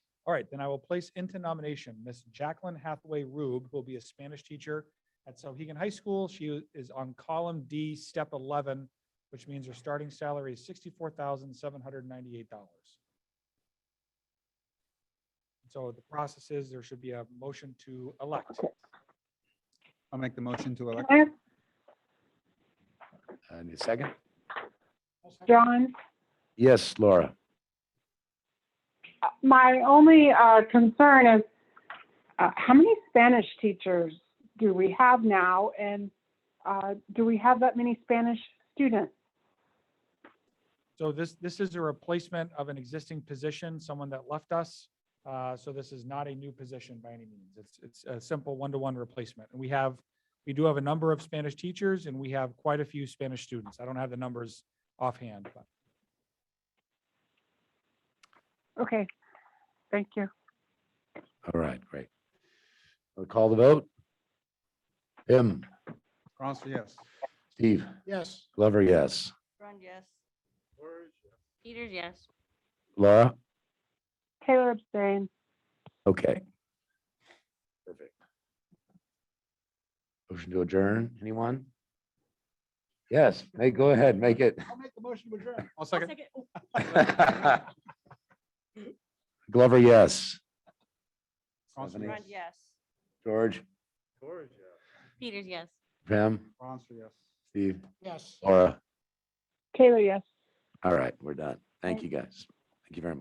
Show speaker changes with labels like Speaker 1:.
Speaker 1: All right, then I will place into nomination Miss Jacqueline Hathaway Rube, who will be a Spanish teacher at Sohegan High School. She is on column D, step 11, which means her starting salary is $64,798. So the process is there should be a motion to elect.
Speaker 2: I'll make the motion to elect.
Speaker 3: Mark,
Speaker 4: I Uh, need a second.
Speaker 3: John,
Speaker 4: Yes, Laura.
Speaker 3: my only uh, concern is, uh, how many Spanish teachers do we have now? And uh, do we have that many Spanish students?
Speaker 1: So this, this is a replacement of an existing position, someone that left us. Uh, So this is not a new position by any means. It's, it's a simple one-to-one replacement. And we have, we do have a number of Spanish teachers and we have quite a few Spanish students. I don't have the numbers offhand, but
Speaker 3: Okay, thank you.
Speaker 4: All right, great. I'll call the vote. Tim,
Speaker 2: Ronstadt, yes.
Speaker 4: Steve,
Speaker 5: Yes.
Speaker 4: Glover, yes.
Speaker 6: Run, yes. Peters, yes.
Speaker 4: Laura?
Speaker 3: Taylor abstain.
Speaker 4: Okay. Perfect. Motion to adjourn, anyone? Yes, hey, go ahead, make it.
Speaker 5: I'll make the motion to adjourn.
Speaker 2: I'll second.
Speaker 4: Glover, yes.
Speaker 2: Ronstadt,
Speaker 6: Run,
Speaker 2: yes.
Speaker 6: yes.
Speaker 4: George,
Speaker 6: Peters, yes.
Speaker 4: Pam,
Speaker 2: Ronstadt, yes.
Speaker 4: Steve,
Speaker 5: Yes.
Speaker 4: Laura.
Speaker 3: Taylor, yes.
Speaker 4: All right, we're done. Thank you, guys. Thank you very much.